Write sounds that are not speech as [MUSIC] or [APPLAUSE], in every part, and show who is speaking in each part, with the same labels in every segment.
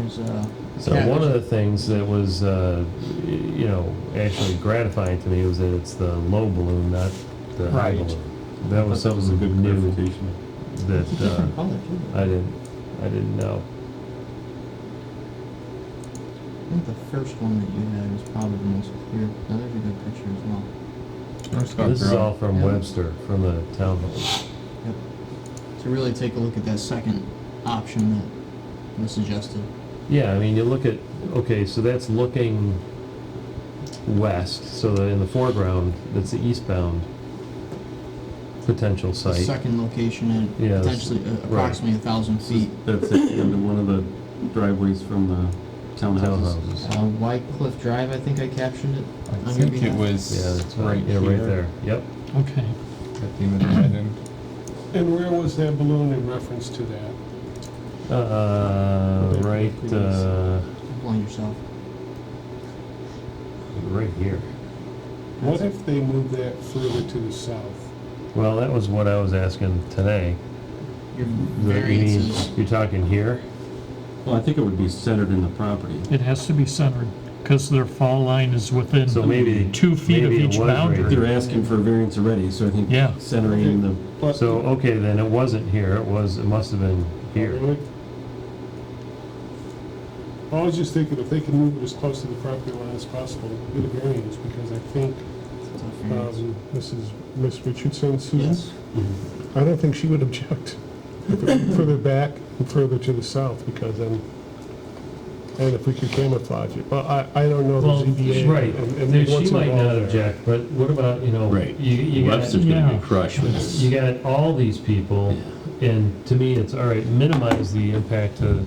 Speaker 1: is, uh.
Speaker 2: So
Speaker 1: yeah,
Speaker 2: one of the things that was, uh, y- you know, actually gratifying to me was that it's the low balloon, not the high
Speaker 1: Right.
Speaker 2: balloon. That was
Speaker 3: That was a good
Speaker 2: something new
Speaker 3: clarification.
Speaker 2: that
Speaker 1: It's a [LAUGHS]
Speaker 2: uh,
Speaker 1: different color too.
Speaker 2: I didn't, I didn't know.
Speaker 1: I think the first one that you had was probably the most clear. Now there's a good picture as well.
Speaker 2: This is all from
Speaker 1: Yeah.
Speaker 2: Webster, from the town hall.
Speaker 1: So really take a look at that second option that was suggested.
Speaker 2: Yeah, I mean, you look at, okay, so that's looking west, so that in the foreground, that's the eastbound potential
Speaker 1: The
Speaker 2: site.
Speaker 1: second location at
Speaker 2: Yeah, that's-
Speaker 1: potentially uh, approximately a thousand feet.
Speaker 3: That's it, and one of the driveways from the townhouses.
Speaker 2: Townhouses.
Speaker 1: Uh, White Cliff Drive, I think I captioned it.
Speaker 4: I
Speaker 1: on your
Speaker 4: think it
Speaker 1: behalf.
Speaker 2: Yeah,
Speaker 4: was
Speaker 2: that's
Speaker 4: right
Speaker 2: right, yeah,
Speaker 4: here.
Speaker 2: right there, yep.
Speaker 5: Okay.
Speaker 4: At the end of the right end.
Speaker 6: And where was that balloon in reference to that?
Speaker 2: Uh, right, uh,
Speaker 1: Blind yourself.
Speaker 2: right here.
Speaker 6: What if they moved that further to the south?
Speaker 2: Well, that was what I was asking today.
Speaker 1: Your
Speaker 2: That you mean-
Speaker 1: variances.
Speaker 2: You're talking here?
Speaker 3: Well, I think it would be centered in the property.
Speaker 5: It has to be centered, because their fall line is within
Speaker 2: So maybe-
Speaker 5: two feet of
Speaker 2: maybe it
Speaker 5: each
Speaker 2: was right
Speaker 5: boundary.
Speaker 3: They're asking for a variance already, so I think
Speaker 5: Yeah.
Speaker 3: centering the,
Speaker 6: But-
Speaker 2: So, okay, then it wasn't here, it was, it must have been here.
Speaker 6: I was just thinking, if they can move it as close to the property line as possible, get a variance, because I think,
Speaker 1: It's not
Speaker 2: Mm-hmm.
Speaker 1: variance.
Speaker 6: um, this is Miss Richardson, Susan?
Speaker 1: Yes.
Speaker 6: I don't think she would object if it went further back and further to the south, because then, and if we could camouflage it, but I, I don't know the
Speaker 5: Well,
Speaker 6: ZBA.
Speaker 2: Right,
Speaker 6: and- and
Speaker 2: There-
Speaker 6: what's
Speaker 2: she might not
Speaker 6: involved there.
Speaker 2: object, but what about, you know,
Speaker 3: Right.
Speaker 2: you, you got,
Speaker 3: Webster's gonna
Speaker 5: yeah.
Speaker 3: get crushed with this.
Speaker 2: you got all these people, and to me, it's, all right, minimize the impact to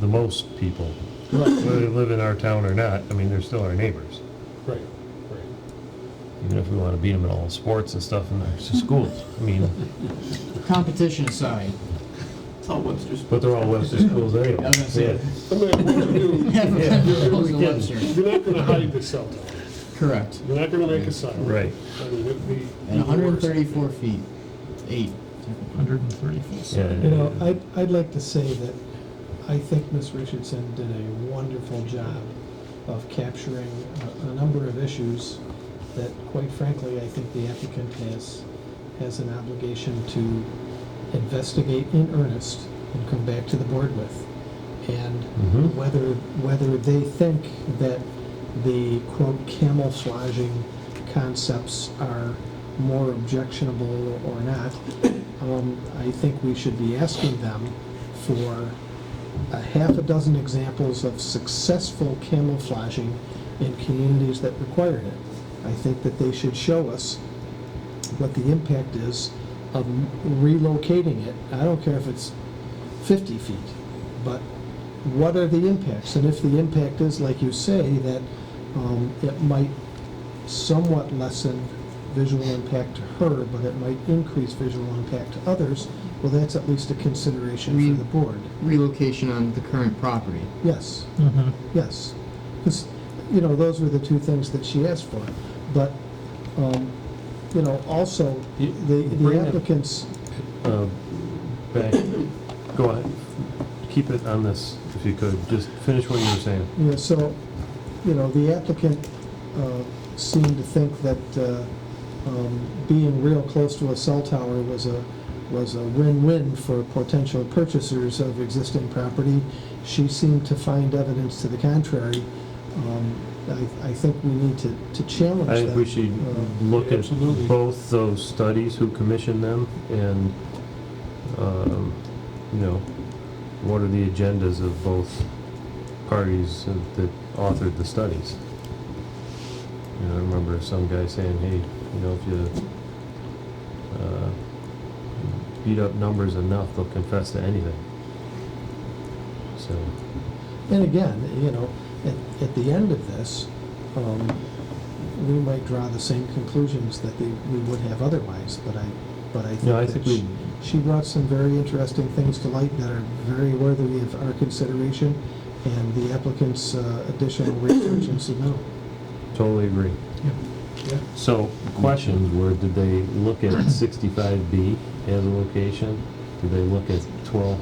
Speaker 2: the most people, whether they live in our town or not, I mean, they're still our neighbors,
Speaker 6: Right, right.
Speaker 2: even if we want to beat them in all the sports and stuff in their schools, I mean,
Speaker 1: Competition aside,
Speaker 3: It's all Webster's.
Speaker 2: but they're all Webster schools anyway.
Speaker 1: I was gonna say.
Speaker 2: Yeah.
Speaker 6: I mean, what you do,
Speaker 1: [LAUGHS] Yeah,
Speaker 6: you're-
Speaker 1: close to
Speaker 2: we can.
Speaker 1: Webster.
Speaker 6: you're not gonna hide the cell tower,
Speaker 1: Correct.
Speaker 6: you're not gonna make a sign.
Speaker 2: Right.
Speaker 6: I mean, it'd be-
Speaker 1: And 134 feet, eight. technically.
Speaker 5: 130 feet.
Speaker 2: Yeah,
Speaker 7: You know, I'd, I'd like to say that I think Ms. Richardson did a wonderful job of capturing a, a number of issues that quite frankly, I think the applicant has, has an obligation to investigate in earnest and come back to the board with. And
Speaker 2: Mhm.
Speaker 7: whether, whether they think that the quote camouflaging concepts are more objectionable or not, um, I think we should be asking them for a half a dozen examples of successful camouflaging in communities that required it. I think that they should show us what the impact is of relocating it. I don't care if it's 50 feet, but what are the impacts? And if the impact is, like you say, that um, it might somewhat lessen visual impact to her, but it might increase visual impact to others, well, that's at least a consideration
Speaker 1: We-
Speaker 7: for the board.
Speaker 1: Relocation on the current property.
Speaker 7: Yes,
Speaker 2: Mm-hmm.
Speaker 5: Mhm.
Speaker 7: yes. Because, you know, those were the two things that she asked for. But, um, you know, also,
Speaker 2: You-
Speaker 7: the
Speaker 2: bring
Speaker 7: the
Speaker 2: up-
Speaker 7: applicants,
Speaker 2: Uh, back, go ahead, keep it on this if you could, just finish what you were saying.
Speaker 7: Yeah, so, you know, the applicant uh, seemed to think that uh, um, being real close to a cell tower was a, was a win-win for potential purchasers of existing property. She seemed to find evidence to the contrary. Um, I, I think we need to, to challenge
Speaker 2: I
Speaker 7: that.
Speaker 2: think we should
Speaker 7: Uh,
Speaker 2: look at
Speaker 6: Absolutely.
Speaker 2: both those studies, who commissioned them, and, um, you know, what are the agendas of both parties that authored the studies? You know, I remember some guy saying, hey, you know, if you, uh, beat up numbers enough, they'll confess to anything. So,
Speaker 7: And again, you know, at, at the end of this, um, we might draw the same conclusions that they, we would have otherwise, but I, but I think
Speaker 2: no, I
Speaker 7: that
Speaker 2: think
Speaker 7: she-
Speaker 2: we,
Speaker 7: She brought some very interesting things to light that are very worthy of our consideration and the applicant's uh, additional research and submittal.
Speaker 2: Totally agree.
Speaker 7: Yeah.
Speaker 6: Yeah.
Speaker 2: So, questions were, did they look at sixty-five B as a location? Did they look at twelve